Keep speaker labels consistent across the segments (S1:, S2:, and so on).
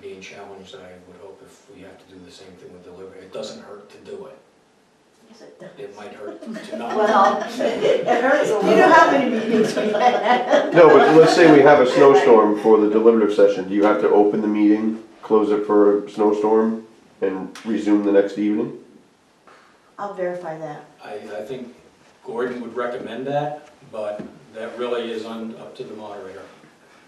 S1: being challenged, I would hope if we have to do the same thing with delivery, it doesn't hurt to do it.
S2: Yes, it does.
S1: It might hurt to not.
S2: Well, it hurts, you know how many meetings we've had?
S3: No, but let's say we have a snowstorm for the deliberative session, do you have to open the meeting, close it for a snowstorm, and resume the next evening?
S2: I'll verify that.
S1: I, I think Gordon would recommend that, but that really is on, up to the moderator.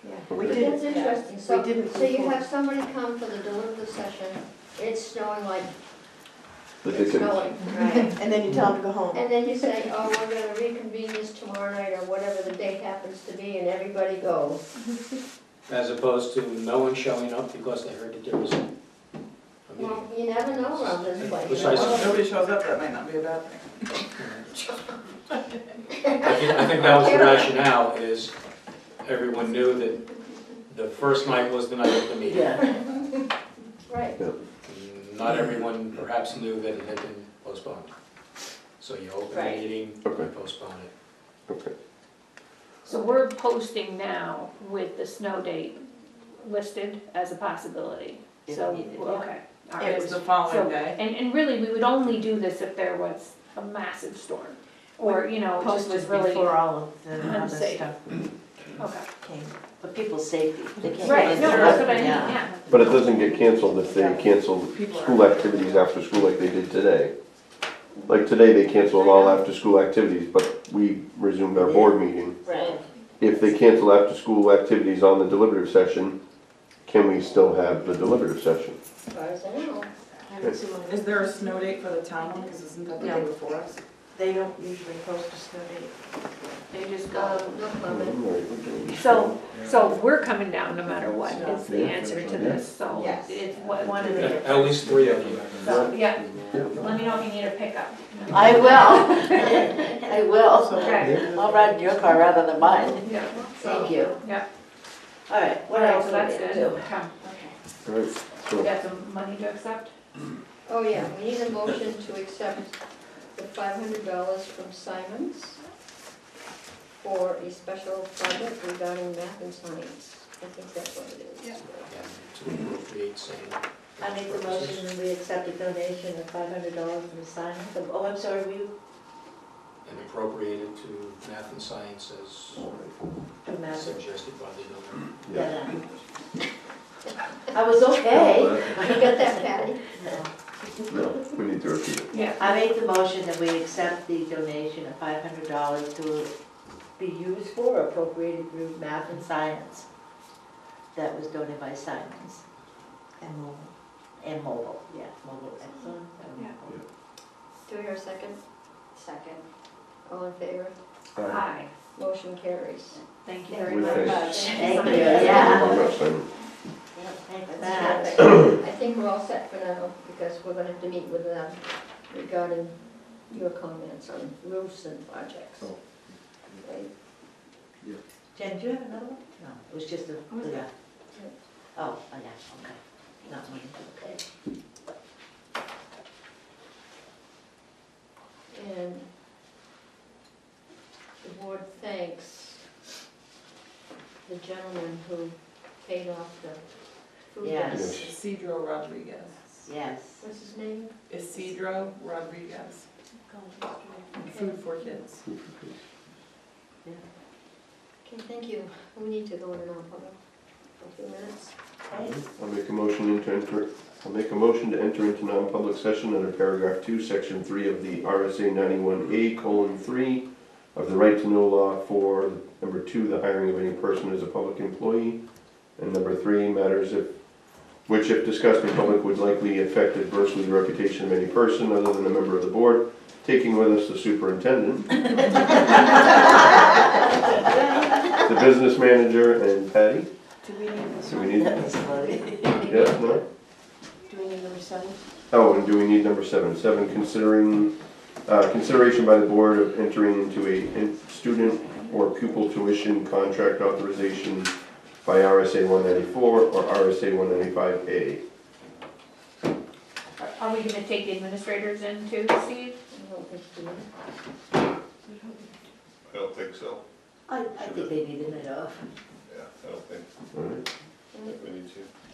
S2: Yeah, we
S3: Okay.
S4: That's
S2: did,
S4: interesting,
S2: We
S4: so,
S2: didn't
S4: so you
S2: before.
S4: have somebody come for the deliberative session, it's snowing like,
S3: The
S4: it's
S3: Dickens.
S4: snowing, right?
S2: and then you tell them to go home.
S4: And then you say, oh, we're gonna reconvene this tomorrow night, or whatever the date happens to be, and everybody goes.
S1: As opposed to no one showing up because they heard that there was a meeting.
S4: Well, you never know around this place. you know?
S1: Precisely.
S5: Well, if nobody shows up, that might not be a bad thing.
S1: I think, I think that was the rationale, is everyone knew that the first night was the night of the meeting.
S2: Yeah,
S4: Right,
S1: Not everyone perhaps knew that it had been postponed. So you open the
S4: Right.
S1: meeting,
S3: Okay.
S1: postpone it.
S3: Okay.
S6: So we're posting now with the snow date listed as a possibility. So,
S2: If needed, yeah.
S6: okay. all
S5: It
S6: right.
S5: was the
S6: So-
S5: following day.
S6: And, and really, we would only do this if there was a massive storm, or, you know, it just was
S2: posted
S6: really,
S2: before all of the other
S6: unsafe.
S2: stuff
S6: okay.
S2: came.
S7: For people's safety, they can't.
S6: Right,
S7: let
S6: no,
S7: it
S6: that's
S7: happen.
S6: what I mean, yeah.
S3: But it doesn't get canceled if they cancel school activities after school like they did today. Like today, they canceled all after-school activities, but we resumed our board meeting.
S7: Right.
S3: If they cancel after-school activities on the deliberative session, can we still have the deliberative session?
S4: as far as I know.
S2: I don't see why-
S5: Is there a snow date for the town one, because isn't that the day
S2: No.
S5: before us?
S2: They don't usually post a snow date.
S6: They just go.
S4: Um, no comment.
S6: So, so we're coming down no matter what is the answer to this, so
S2: Yes.
S6: it's what,
S2: One of
S1: At
S2: the,
S1: at least three of you.
S6: so, yeah. Let me know if you need a pickup.
S7: I will, I will.
S6: Okay,
S7: I'll ride in your car rather than mine.
S6: yeah,
S7: Thank you.
S6: yeah.
S7: All right, what
S6: All right,
S7: else
S6: so
S7: do we
S6: that's
S7: need to
S6: good.
S7: do?
S6: Okay.
S3: Right,
S6: We
S3: so,
S6: got some money to accept?
S4: Oh, yeah, we need a motion to accept the five hundred dollars from Simons for a special project regarding math and science. I think that's what it is.
S1: And to appropriate same.
S2: I make the motion and we accept a donation of five hundred dollars from Simon. Oh, I'm sorry, we,
S1: And appropriate it to math and science as
S2: from that.
S1: suggested by the
S3: yeah.
S2: Yeah. I was okay.
S4: You got that, Patty?
S3: No, we need to repeat it.
S6: Yeah.
S2: I make the motion that we accept the donation of five hundred dollars to be used for appropriated through math and science. That was donated by Simons. And mobile. And mobile, yeah, mobile, excellent. and
S6: Yeah.
S2: mobile.
S4: Do we hear a second? Second. All in favor?
S6: Aye,
S4: Motion carries.
S6: thank you
S2: Thank
S6: very
S3: you.
S6: much.
S2: Thank you,
S6: Simon.
S2: yeah.
S3: Hold on a second.
S2: Thanks for
S4: That's
S2: that.
S4: terrific. I think we're all set for now, because we're gonna have to meet with them regarding your comments on roofs and projects.
S8: Oh.
S4: Right?
S2: Jen, do you have another one? No, it was just a,
S6: was
S2: yeah.
S4: that?
S2: Oh, oh, yeah, okay. Not mine, okay.
S4: And the board thanks the gentleman who paid off the food.
S2: Yes.
S4: bank.
S3: Yes.
S5: Isidro Rodriguez.
S2: Yes.
S4: What's his name?
S5: Isidro Rodriguez, Food for Kids.
S4: Okay, thank you. We need to go in non-public for a few minutes.
S2: Okay.
S3: I'll make a motion into enter, I'll make a motion to enter into non-public session under paragraph two, section three of the RSA ninety-one A colon three of the right to know law for, number two, the hiring of any person as a public employee, and number three, matters if, which if discussed in public would likely affect adversely the reputation of any person other than a member of the board, taking with us the superintendent, the business manager, and Patty.
S2: Do we need this?
S3: Do we need,
S7: That was funny.
S3: yes, no?
S2: Do we need number seven?
S3: Oh, and do we need number seven? Seven, considering, uh, consideration by the board of entering into a in- student or pupil tuition contract authorization by RSA one ninety-four or RSA one ninety-five A.
S6: Are- Are we gonna take the administrators in too, Steve?
S4: I don't think we-
S8: I don't think so,
S2: I, I think they need a night off.
S8: yeah, I don't think,
S3: Alright,
S8: I think we need to.